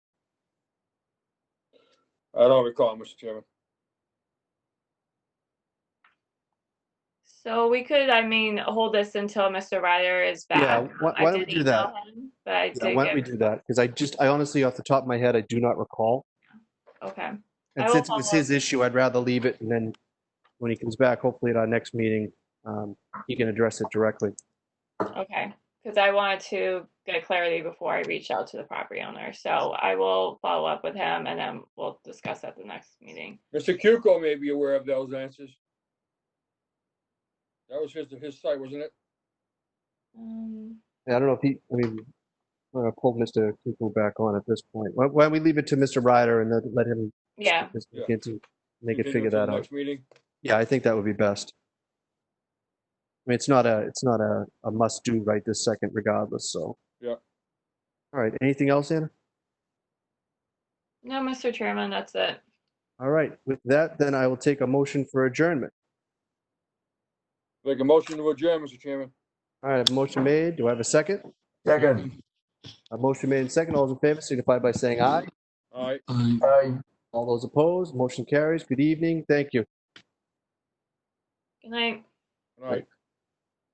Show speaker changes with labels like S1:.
S1: I don't recall, Mr. Chairman.
S2: So we could, I mean, hold this until Mr. Ryder is back.
S3: Yeah, why,
S2: I
S3: why don't we
S2: did
S3: do
S2: email
S3: that?
S2: him, But I
S3: Yeah, why don't we
S2: did
S3: do
S2: get,
S3: that? Because I just, I honestly, off the top of my head, I do not recall.
S2: okay. I
S3: And
S2: will
S3: since it was
S2: follow up.
S3: his issue, I'd rather leave it and then when he comes back, hopefully at our next meeting, um, he can address it directly.
S2: Okay, because I wanted to get clarity before I reach out to the property owner, so I will follow up with him and then we'll discuss at the next meeting.
S1: Mr. Cuco may be aware of those answers. That was his, his site, wasn't it?
S2: Um,
S3: And I don't know if he, I mean, I'm gonna pull Mr. Kuku back on at this point. Why, why don't we leave it to Mr. Ryder and then let him
S2: Yeah,
S3: just
S1: Yeah.
S3: begin to, they could
S1: Continue
S3: figure
S1: to the
S3: that out.
S1: Next meeting.
S3: Yeah, I think that would be best. I mean, it's not a, it's not a, a must do right this second regardless, so.
S1: Yeah.
S3: All right, anything else, Anna?
S2: no, Mr. Chairman, that's it.
S3: All right, with that, then I will take a motion for adjournment.
S1: Make a motion to adjourn, Mr. Chairman.
S3: All right, I have a motion made. Do I have a second?
S4: Second.
S3: A motion made and second. All those in favor signify by saying aye.
S1: All right.
S4: Aye.
S3: All those opposed, motion carries. Good evening. Thank you.
S2: Good night.
S1: All right.